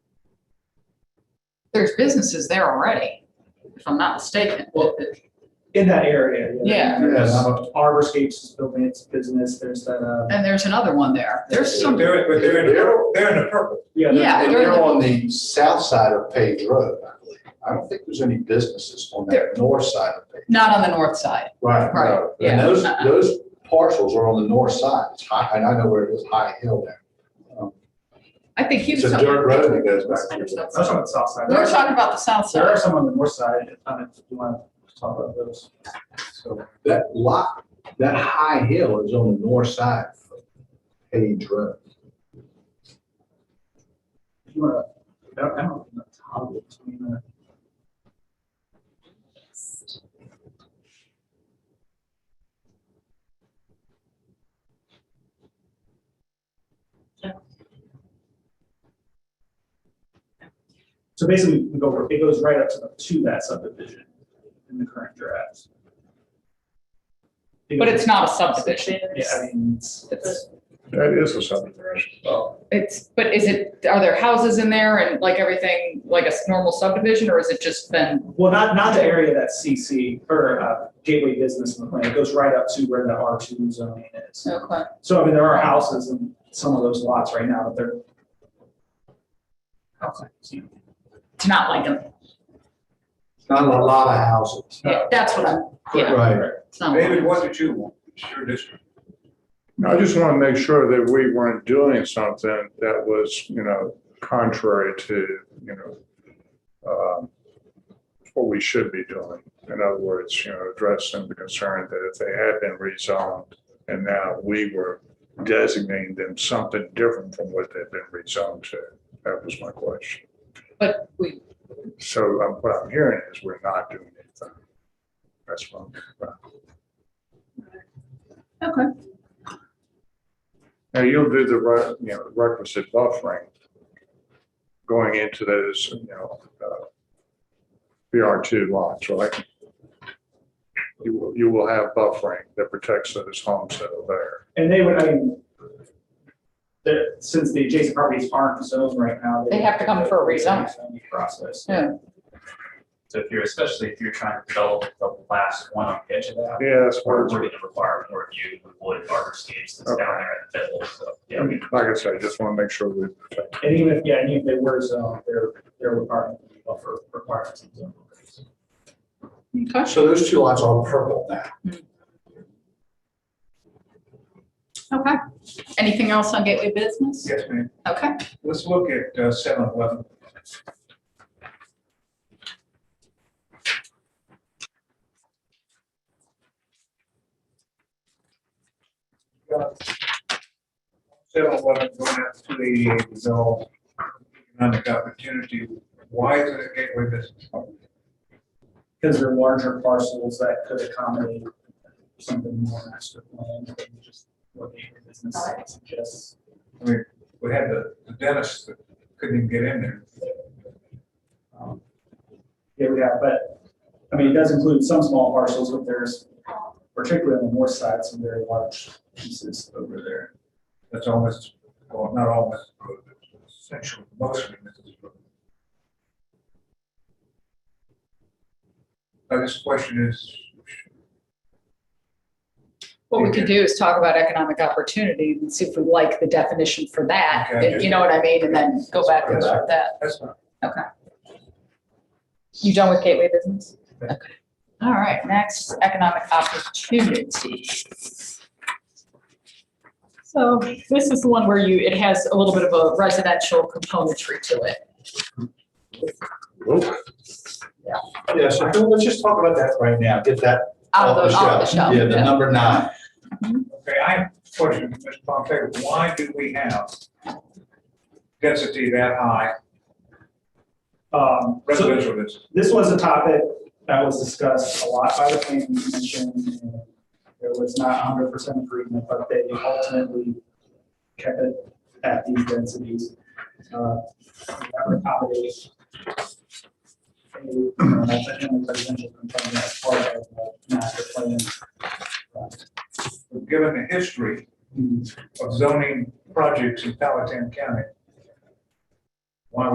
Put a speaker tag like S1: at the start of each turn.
S1: There's businesses there already, if I'm not mistaken.
S2: Well, in that area.
S1: Yeah.
S2: There's
S3: Yes.
S2: Arborscapes is building its business, there's that, uh,
S1: And there's another one there. There's some,
S4: They're, but they're in, the purple- they're in the purple.
S2: yeah. there's-
S1: Yeah,
S3: And
S1: they're-
S3: they're on the south side of Page Road, I believe. I don't think there's any businesses on
S1: There-
S3: that north side of Page.
S1: not on the north side.
S3: Right,
S1: Right,
S3: no.
S1: yeah. Uh-uh.
S3: And those, those parcels are on the north side. It's high, and I know where it is, High Hill there. Um,
S1: I think he was
S3: It's a
S1: talking.
S3: dirt road that goes back to the.
S2: That's on the south side.
S1: We were talking about the south
S2: There are
S1: side.
S2: some on the north side, if um, if you want to talk about those. So,
S3: That lot, that high hill is on the north side of Page Road.
S2: if you want to, I don't, I don't know, toggle between the. So basically, we go, over- it goes right up to, the- to that subdivision in the current draft.
S1: But it's not a subdivision.
S2: Yeah, I mean, it's, it's,
S5: That is a subdivision.
S2: well,
S1: It's, but is it, are there houses in there and like everything, like a s- normal subdivision, or is it just been?
S2: well, not, not the area that's CC or uh, gateway business in the plan. It goes right up to where the R two zoning is.
S1: Okay.
S2: So I mean, there are houses in some of those lots right now, but they're.
S1: It's not like a,
S3: It's Not a lot of houses.
S1: yeah, that's what I'm, yeah,
S3: Right.
S1: it's not.
S4: David, what did you want? It's your district.
S5: I just want to make sure that we weren't doing something that was, you know, contrary to, you know, um, what we should be doing. In other words, you know, addressing the concern that if they had been rezoned and now we were designating them something different from what they've been rezoned to. That was my question.
S1: But we,
S5: So um, what I'm hearing is we're not doing anything. That's what I'm.
S1: okay,
S5: Now, you'll do the, re- you know, requisite buffering going into those, you know, uh, BR2 lots, right? You will, you will have buffering that protects those homes that are there.
S2: And they would, I mean. That, since the adjacent properties aren't zoned right now.
S1: They have to come for a rezoning.
S2: Process.
S1: Yeah.
S6: So if you're, especially if you're trying to develop the last one on the edge of that,
S5: Yeah, that's
S6: we're
S5: where,
S6: going to require more review with wood arborscapes that's down there in the middle, so, yeah. we-
S5: like I said, I just want to make sure we protect.
S2: And even if, yeah, and even if they were zoned, they're, they're required, buffer requirements. and zone requirements.
S1: okay.
S3: So those two lots are purple now.
S1: Okay. Anything else on gateway business?
S4: Yes, ma'am.
S1: Okay,
S4: Let's look at uh, seven eleven. Seven eleven going out to the zone, economic opportunity. Why is it a gateway business?
S2: Because they're larger parcels that could accommodate something more master plan than just what the business suggests.
S4: I mean, we had the the dentist that couldn't even get in there.
S2: Um, Yeah, we have, but, I mean, it does include some small parcels, but there's particularly on the north side, some very large pieces over there.
S4: That's almost, well, not almost, but essentially mostly Mrs. Brooks. Now, this question is,
S1: what we could do is talk about economic opportunity and see if we like the definition for that, you know what I mean, and then go back and about that.
S4: that's not,
S1: You done with gateway business? Okay. All right, next, economic opportunity. So this is the one where you, it has a little bit of a residential componentry to it.
S3: Yeah, so Bill, let's just talk about that right now, get that
S1: Out of the, out of the shelf.
S3: Oh, Yeah, the number nine.
S4: okay, I have a question, Mr. Pompey, why do we have density that high,
S2: Um, so
S4: residential density?
S2: this was a topic that was discussed a lot by the planning commission. and There was not hundred percent agreement, but they ultimately kept it at these densities. uh, That would accommodate a, uh, a residential component as part of the master plan.
S4: Given the history of zoning projects in Palatine County,